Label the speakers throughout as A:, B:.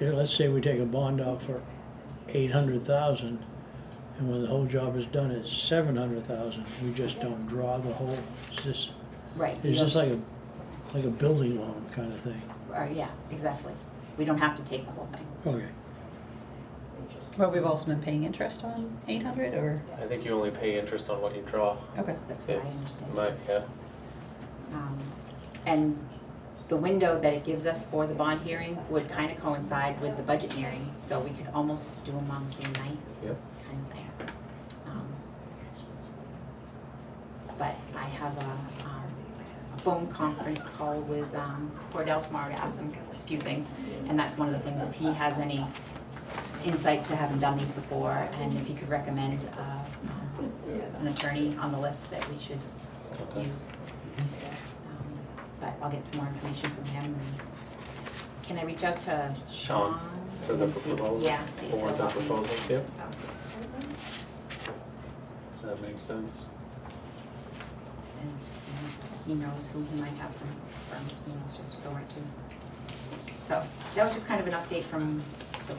A: you know, let's say we take a bond out for eight hundred thousand, and when the whole job is done, it's seven hundred thousand, we just don't draw the whole, it's just,
B: Right. you
A: it's just
B: don't-
A: like a, like a building loan kind of thing.
B: or, yeah, exactly. We don't have to take the whole thing.
A: Okay,
C: Well, we've also been paying interest on eight hundred or,
D: I think you only pay interest on what you draw.
C: okay.
B: That's what I
D: Yeah.
B: understand.
D: Mike, yeah.
B: Um, And the window that it gives us for the bond hearing would kind of coincide with the budget hearing, so we could almost do them on the same night.
D: Yep.
B: Kind of thing. Um, But I have a, um, a phone conference call with um, Cordell tomorrow to ask him a few things. And that's one of the things, if he has any insight to having done these before, and if he could recommend uh, um, an attorney on the list that we should use. Um, But I'll get some more information from him. and- Can I reach out to Sean?
D: Sean, for the
B: and see-
D: proposals,
B: Yeah, see if
D: for
B: he'll
D: the
B: help me.
D: proposals, yep.
B: So,
D: Does that make sense?
B: And see if he knows who he might have some firms, he knows just to go right to. So that was just kind of an update from the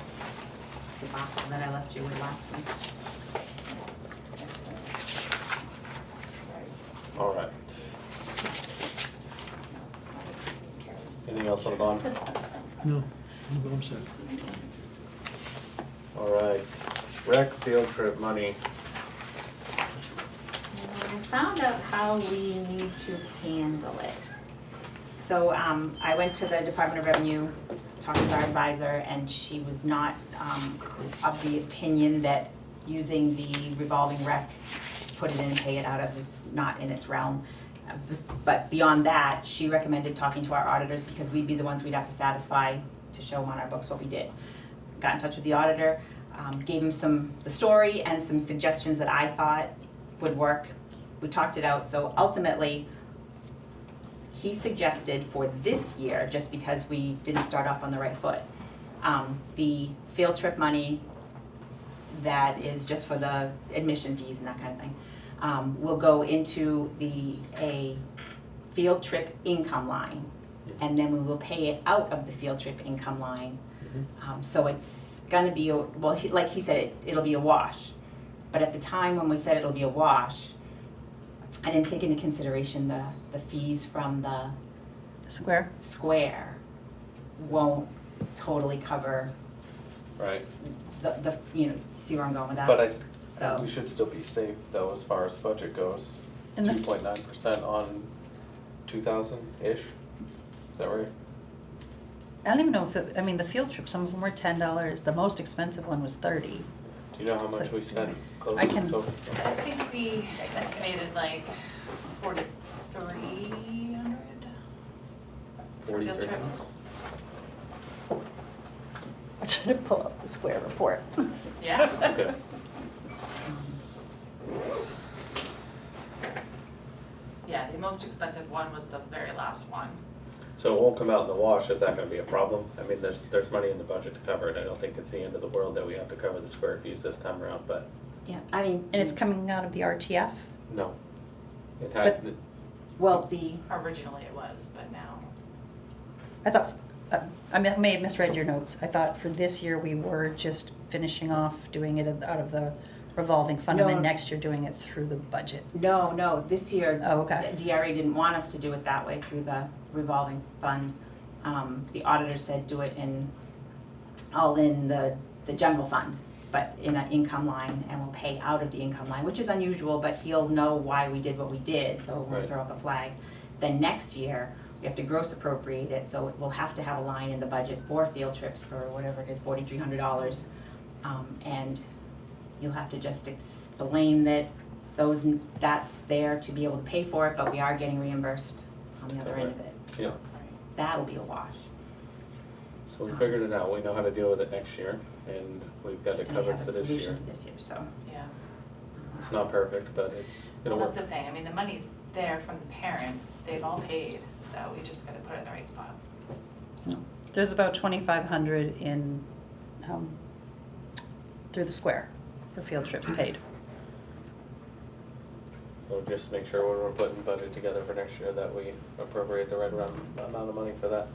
B: the box that I left you with last week.
D: All right. Anything else on the bond?
A: no, I'm all set.
D: All right. Rec field trip money.
B: And I found out how we need to handle it. So um, I went to the Department of Revenue, talked with our advisor, and she was not um, of the opinion that using the revolving rec, put it in, pay it out of is not in its realm. Uh, bes- But beyond that, she recommended talking to our auditors because we'd be the ones we'd have to satisfy to show on our books what we did. Got in touch with the auditor, um, gave him some, the story and some suggestions that I thought would work. We talked it out, so ultimately, he suggested for this year, just because we didn't start off on the right foot, um, the field trip money that is just for the admission fees and that kind of thing, um, will go into the, a field trip income line. And then we will pay it out of the field trip income line. Um, so it's gonna be, a- well, he, like he said, it, it'll be a wash. But at the time when we said it'll be a wash, I didn't take into consideration the, the fees from the
C: Square?
B: square won't totally cover
D: Right.
B: the, the, you know, see where I'm going with that?
D: But I-
B: So,
D: We should still be safe though as far as budget goes.
C: And the-
D: Two point nine percent on two thousand-ish. Is that right?
C: I don't even know if, it- I mean, the field trip, some of them were ten dollars, the most expensive one was thirty.
D: Do you know how much
C: So-
D: we spent? close
C: I can-
D: to-
E: I think we estimated like forty-three hundred field
D: Forty-three.
E: trips.
C: I tried to pull up the square report.
E: Yeah,
D: Okay.
E: yeah, the most expensive one was the very last one.
D: So it won't come out in the wash, is that gonna be a problem? I mean, there's, there's money in the budget to cover it, I don't think it's the end of the world that we have to cover the square fees this time around, but
B: yeah, Mm. I mean,
C: And it's coming out of the RTF?
D: no. It had,
B: well, the,
E: Originally it was, but now,
C: I thought, uh, I may- may have misread your notes. I thought for this year, we were just finishing off doing it out of the revolving fund, and
B: No.
C: then next year doing it through the budget.
B: no, no, this year,
C: Oh, okay.
B: the DRA didn't want us to do it that way through the revolving fund. Um, the auditor said do it in, all in the, the general fund, but in an income line, and we'll pay out of the income line, which is unusual, but he'll know why we did what we did, so we won't
D: Right.
B: throw up a flag. Then next year, we have to gross appropriate it, so we'll have to have a line in the budget for field trips for whatever it is, forty-three hundred dollars. Um, and you'll have to just explain that those, that's there to be able to pay for it, but we are getting reimbursed on the other end of it. So
D: Yeah.
B: it's- That'll be a wash.
D: so we figured it out, we know how to deal with it next year, and we've got it
B: And we
D: covered
B: have a
D: for this year.
B: solution this year, so.
E: yeah.
D: It's not perfect, but it's, it'll
E: Well,
D: work.
E: that's the thing, I mean, the money's there from the parents, they've all paid, so we just gotta put it in the right spot.
C: There's about twenty-five hundred in, um, through the square for field trips paid.
D: So just make sure when we're putting budget together for next year that we appropriate the right amount amount of money for that.